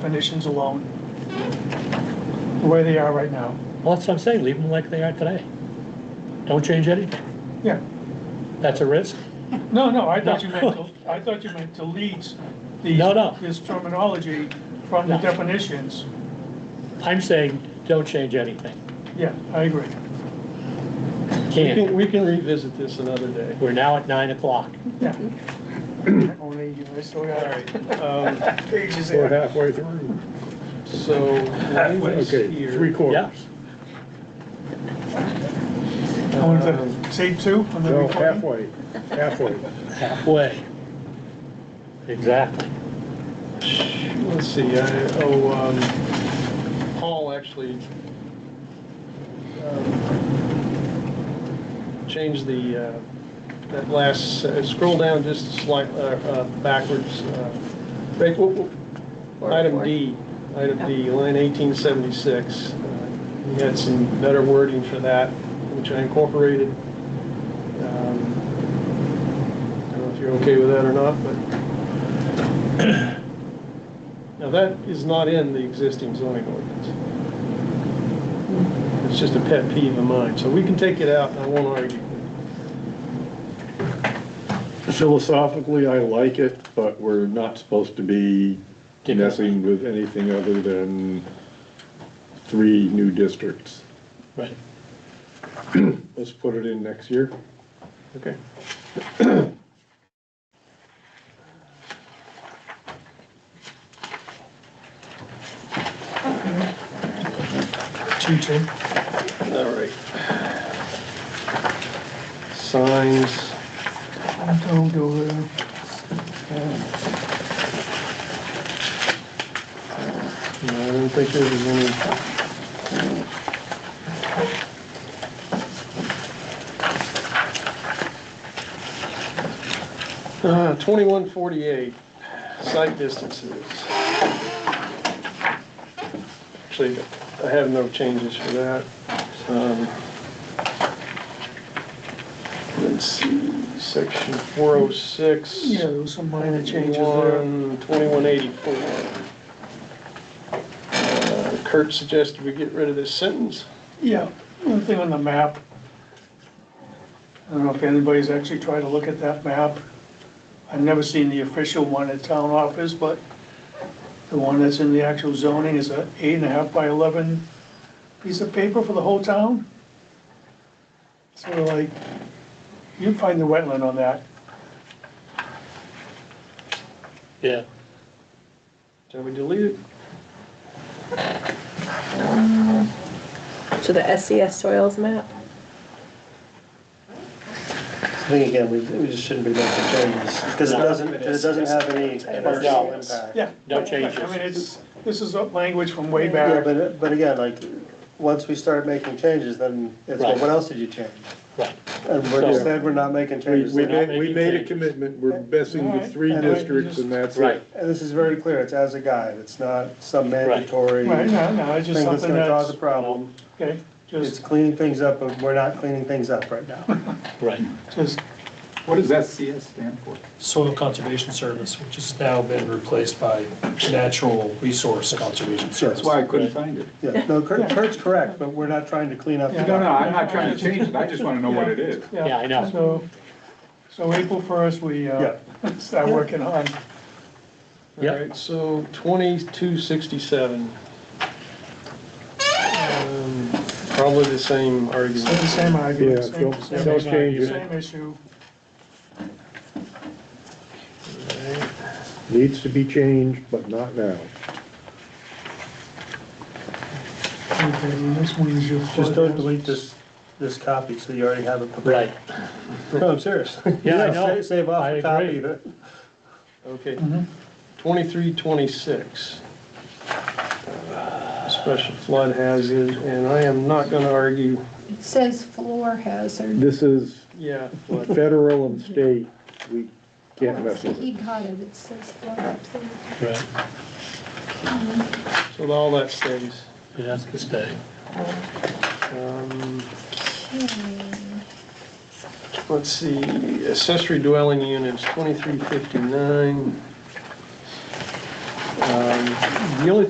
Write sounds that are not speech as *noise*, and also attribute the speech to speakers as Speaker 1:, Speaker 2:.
Speaker 1: definitions alone, the way they are right now.
Speaker 2: Well, that's what I'm saying, leave them like they are today. Don't change anything.
Speaker 1: Yeah.
Speaker 2: That's a risk.
Speaker 1: No, no, I thought you meant, to- I thought you meant to lead these,
Speaker 2: No, no.
Speaker 1: this terminology from the
Speaker 2: No.
Speaker 1: definitions.
Speaker 2: I'm saying, don't change anything.
Speaker 1: Yeah, I agree.
Speaker 3: We can,
Speaker 2: Can't.
Speaker 3: we can revisit this another day.
Speaker 2: We're now at nine o'clock.
Speaker 1: Yeah. *coughs* Only you, I still got
Speaker 3: Um,
Speaker 1: *laughs* pages
Speaker 4: We're
Speaker 1: there.
Speaker 4: halfway through.
Speaker 3: So, Larry's
Speaker 4: Okay, three
Speaker 3: here.
Speaker 2: Yeah.
Speaker 4: quarters.
Speaker 1: I want to say two on the
Speaker 4: No,
Speaker 1: recording.
Speaker 4: halfway, halfway.
Speaker 2: Halfway. Exactly.
Speaker 3: Let's see, I, oh, um, Paul actually um, changed the, uh, that last, uh, scroll down just slight, uh, uh, backwards. uh, Rick, what- what- Item D, item D, line eighteen seventy-six. Uh, We had some better wording for that, which I incorporated. Um, I don't know if you're okay with that or not, but now, that is not in the existing zoning ordinance. It's just a pet peeve of mine, so we can take it out, and I won't argue.
Speaker 4: Philosophically, I like it, but we're not supposed to be messing with anything other than three new districts.
Speaker 2: Right.
Speaker 4: Let's put it in next year.
Speaker 3: Okay.
Speaker 1: Two, two.
Speaker 3: All right. Signs,
Speaker 1: I'm told to, uh, uh,
Speaker 3: no, I don't think there was any, uh, twenty-one forty-eight, site distances. Actually, I have no changes for that. Um, Let's see, section four oh six.
Speaker 1: yeah, there was some minor changes there.
Speaker 3: One, twenty-one eighty-four. Uh, Kurt suggested we get rid of this sentence.
Speaker 1: Yeah, one thing on the map. I don't know if anybody's actually tried to look at that map. I've never seen the official one at town office, but the one that's in the actual zoning is a eight and a half by eleven piece of paper for the whole town. So like, you find the wetland on that.
Speaker 2: Yeah.
Speaker 3: Shall we delete it?
Speaker 5: To the SCS soils map?
Speaker 6: I think again, we, we just shouldn't be making changes, because it doesn't, because it doesn't have any commercial impact.
Speaker 1: Yeah.
Speaker 2: No changes.
Speaker 1: I mean, it's, this is a language from way
Speaker 6: Yeah,
Speaker 1: back.
Speaker 6: but, but again, like, once we start making changes, then it's, well, what else did you change?
Speaker 2: Right.
Speaker 6: And we're just saying we're not making
Speaker 4: We,
Speaker 6: changes,
Speaker 4: we
Speaker 6: and
Speaker 4: made, we made a commitment, we're messing with three districts and that's
Speaker 2: Right.
Speaker 4: it.
Speaker 6: this is very clear, it's as a guide, it's not some mandatory
Speaker 1: Right,
Speaker 6: thing
Speaker 1: no, no, it's just
Speaker 6: that's
Speaker 1: something
Speaker 6: gonna cause
Speaker 1: that's,
Speaker 6: a problem.
Speaker 1: okay,
Speaker 6: It's
Speaker 1: just,
Speaker 6: cleaning things up, but we're not cleaning things up
Speaker 1: *laughs*
Speaker 6: right now.
Speaker 2: Right.
Speaker 1: just,
Speaker 7: What does SCS stand for?
Speaker 8: Soil Conservation Service, which has now been replaced by Natural Resource Conservation
Speaker 7: That's
Speaker 8: Service.
Speaker 7: why I couldn't find it.
Speaker 6: Yeah, no, Kurt, Kurt's correct, but we're not trying to clean up. the
Speaker 1: Yeah.
Speaker 7: No, no,
Speaker 6: document.
Speaker 7: I'm not trying to change it, I just wanna know what it is.
Speaker 1: yeah.
Speaker 2: Yeah, I know.
Speaker 1: So, so April first, we, uh, *laughs* start working on,
Speaker 2: Yep.
Speaker 3: All right, so twenty-two sixty-seven. Um, Probably the same
Speaker 1: same,
Speaker 3: argument.
Speaker 1: same
Speaker 4: Yeah,
Speaker 1: argument, same,
Speaker 4: don't,
Speaker 1: same
Speaker 4: don't
Speaker 1: issue,
Speaker 4: change it.
Speaker 1: same issue.
Speaker 4: Needs to be changed, but not now.
Speaker 1: Okay, this one is your.
Speaker 6: Just don't delete this, this copy, so you already have it prepared.
Speaker 2: Right.
Speaker 6: *laughs* No, I'm serious.
Speaker 2: Yeah,
Speaker 6: *laughs*
Speaker 2: I
Speaker 6: sa-
Speaker 2: know.
Speaker 6: Save off
Speaker 2: I
Speaker 6: a copy
Speaker 2: agree.
Speaker 6: of it.
Speaker 3: Okay.
Speaker 6: Mm-hmm.
Speaker 3: Twenty-three twenty-six. Uh, Special flood hazard, and I am not gonna argue,
Speaker 9: It says floor hazard.
Speaker 4: This is
Speaker 3: yeah, flood.
Speaker 4: federal and state, we can't mess with it.
Speaker 9: He got it, it says floor hazard.
Speaker 2: Right.
Speaker 3: so all that stays.
Speaker 2: It has to stay.
Speaker 3: Um,
Speaker 9: Okay.
Speaker 3: Let's see, accessory dwelling units, twenty-three fifty-nine. Um, The only